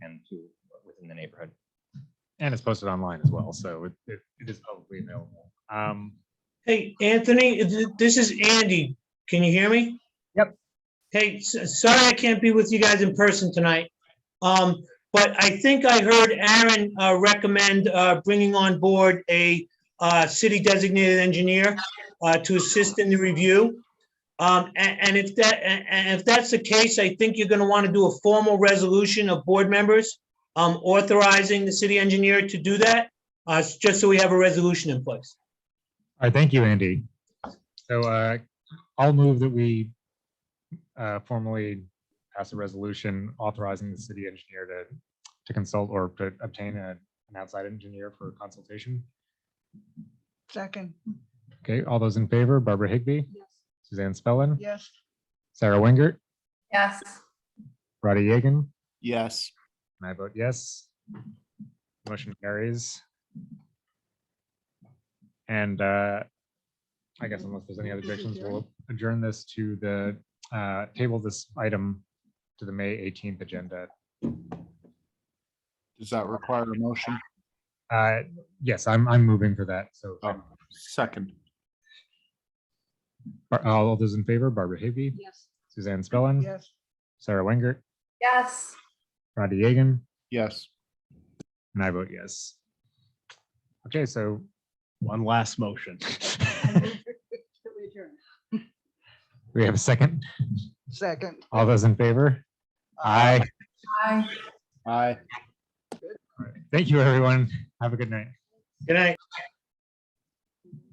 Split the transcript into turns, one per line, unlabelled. and it's posted online as well, so it, it, it is publicly available. Um,
Hey, Anthony, th- this is Andy. Can you hear me?
Yep.
Hey, s- sorry I can't be with you guys in person tonight. Um, but I think I heard Aaron uh, recommend uh, bringing on board a uh, city designated engineer uh, to assist in the review. Um, a- and, if that, a- and if that's the case, I think you're gonna want to do a formal resolution of board members um, authorizing the city engineer to do that, uh, s- just so we have a resolution in place.
all right, thank you, Andy. So, uh, I'll move that we, uh, formally pass a resolution authorizing the city engineer to, to consult or to obtain a- an outside engineer for consultation.
Second,
Okay, all those in favor, Barbara Higbee,
yes,
Suzanne Spellin,
yes,
Sarah Wingert,
Yes,
Roddy Yagan,
yes,
and I vote yes. Motion carries. And uh, I guess unless there's any other objections, we'll adjourn this to the, uh, table this item to the May 18th agenda.
does that require a motion?
Uh, Yes, I'm, I'm moving for that, so.
Oh. Second,
Bar- All those in favor, Barbara Higbee,
yes,
Suzanne Spellin,
yes,
Sarah Wingert,
yes.
Roddy Yagan,
yes.
and I vote yes. Okay, so
One last motion.
we have a second.
second.
All those in favor? Aye.
Aye.
Aye.
Thank you, everyone. Have a good night.
Good night.